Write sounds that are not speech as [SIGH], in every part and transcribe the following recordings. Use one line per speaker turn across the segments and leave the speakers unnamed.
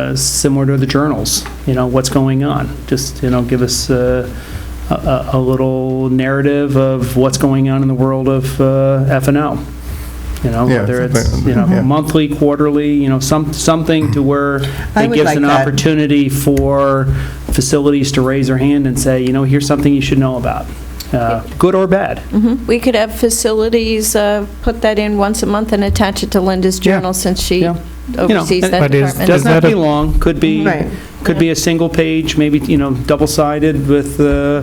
uh, similar to the journals, you know, what's going on. Just, you know, give us uh, a a- a little narrative of what's going on in the world of uh, F and O. You know,
Yeah,
whether it's,
something-
you know,
yeah.
monthly, quarterly, you know, some, something to where
I
it
would
gives
like
an
that.
opportunity for facilities to raise their hand and say, you know, here's something you should know about, uh, good or bad.
We could have facilities, uh, put that in once a month and attach it to Linda's
Yeah.
journal since she
Yeah. know,
oversees that
but
is-
department.
Does not
that
be
a-
long, could be,
Right.
could be a single page, maybe, you know, double-sided with, uh,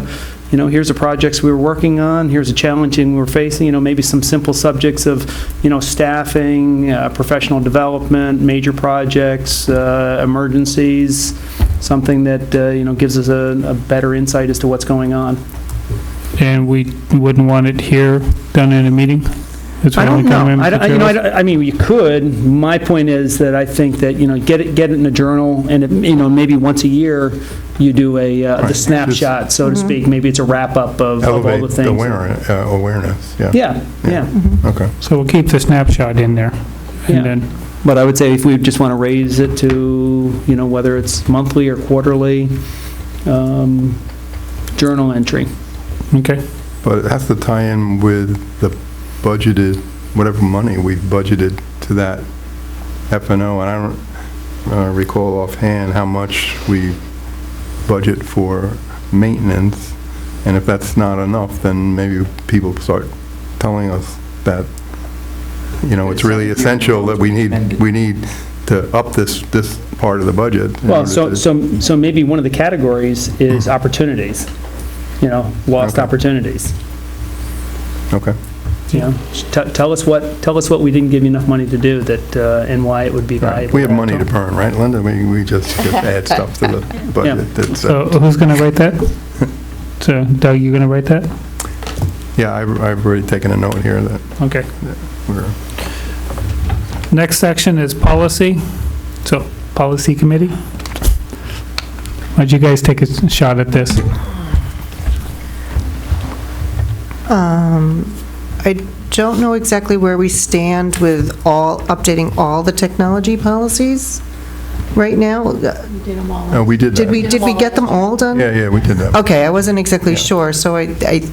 you know, here's the projects we were working on, here's a challenge we were facing, you know, maybe some simple subjects of, you know, staffing, uh, professional development, major projects, uh, emergencies, something that, uh, you know, gives us a a better insight as to what's going on.
And we wouldn't want it here, done in a meeting? That's my
I don't
only
know.
comment,
I don't,
Mr.
you know, I,
Chairman.
don't- I mean, you could. My point is that I think that, you know, get it, get it in a journal, and, it- you know, maybe once a year, you do a, uh, the
Right.
snapshot, so to speak. Maybe it's a wrap-up of of all the
Elevate
things.
the awareness, uh, awareness, yeah.
Yeah, yeah.
Mm-hmm.
Okay.
So we'll keep the snapshot in there.
Yeah.
And then,
But I would say if we just want to raise it to, you know, whether it's monthly or quarterly, um, journal entry.
okay,
But it has to tie in with the budgeted, whatever money we've budgeted to that F and O. And I don't uh, recall offhand how much we budget for maintenance. And if that's not enough, then maybe people start telling us that, you know, it's really essential that we need, we need to up this, this part of the budget. in
Well,
order
so,
to-
so, so maybe one of the categories is opportunities, you know, lost
Hmm. Okay.
opportunities.
Okay.
You know, t- tell us what, tell us what we didn't give you enough money to do that, uh, and why it would be
Right.
valuable.
We have money to burn, right, Linda? We, we just just add stuff to the budget. That's, uh,
so who's going to
[LAUGHS]
write that? So Doug, you going to write that?
Yeah, I've, I've already taken a note here that
Okay.
we're,
Next section is policy. So, policy committee? Why'd you guys take a s- shot at this?
Um, I don't know exactly where we stand with all, updating all the technology policies right now. Uh,
no, we did that.
Did we, did we get them all done?
Yeah, yeah, we did that.
Okay, I wasn't exactly
Yeah.
sure, so I, I,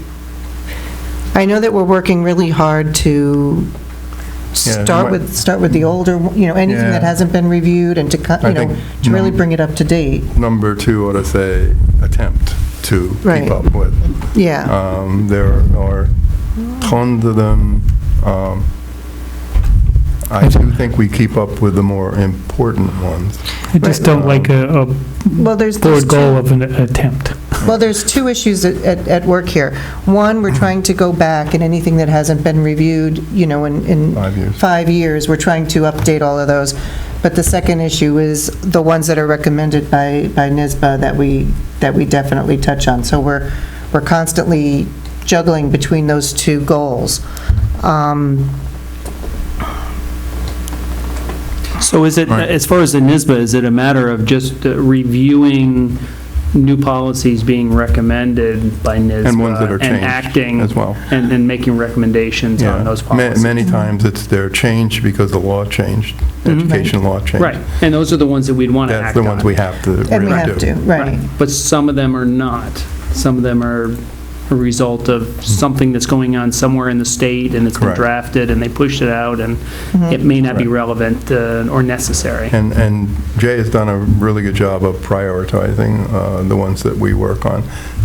I know that we're working really hard to
Yeah, it
start
might-
with, start with the older, you know, anything that
Yeah.
hasn't been reviewed and to, cut-
I
you know,
think mm.
to really
num-
bring it up to date.
Number two ought to say attempt to keep
Right.
up with.
Yeah,
Um, There are tons of them. Um, I do think we keep up with the more important ones.
I just don't like a a
well, there's. there's
board
two-
goal of an attempt.
Well, there's two issues at- at, at work here. One, we're trying to go back, and anything that hasn't been reviewed, you know, in, in
Five years.
five years, we're trying to update all of those. But the second issue is the ones that are recommended by, by NISBA that we, that we definitely touch on. So we're, we're constantly juggling between those two goals. Um,
So is it,
Right.
as far as the NISBA, is it a matter of just uh, reviewing new policies being recommended by NISBA?
And ones that
uh,
are
And
changed
acting,
as well.
and, and making recommendations
Yeah,
on those
Ma-
policies?
Many times it's, they're changed because the law changed, education law changed.
Mm-hmm. Right, and those are the ones that we'd want to
That's
act
the
on.
ones we have to really do.
And we have to, right.
But some of them are not. Some of them are a result of something that's going on somewhere in the state, and it's been
Correct.
drafted, and they pushed it out, and it may not be
Right.
relevant uh, or necessary.
And, and Jay has done a really good job of prioritizing uh, the ones that we work on.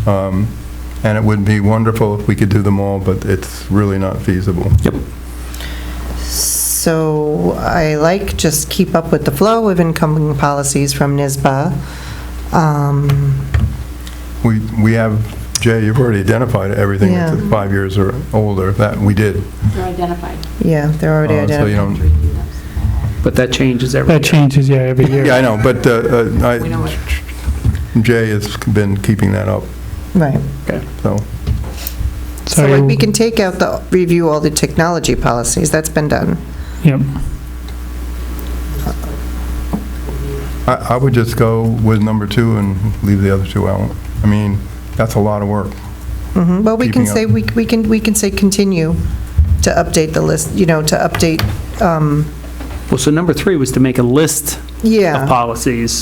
Um, And it would be wonderful if we could do them all, but it's really not feasible. Yep.
So I like just keep up with the flow of incoming policies from NISBA. Um,
We, we have, Jay, you've already identified everything that's
Yeah.
five years or older, that we did.
They're identified.
Yeah, they're already
Uh, so you
identified.
don't-
But that changes every year.
That changes, yeah, every year.
Yeah, I know, but uh, uh, I-
We know what-
Jay has been keeping that up,
Right.
so.
So like, we
you-
can take out the, review all the technology policies, that's been done.
Yep.
I, I would just go with number two and leave the other two out. I mean, that's a lot of work.
Mhm. Well, we can
Keeping up.
say, we we can, we can say continue to update the list, you know, to update, um,
Well, so number three was to make a list
Yeah.
of policies.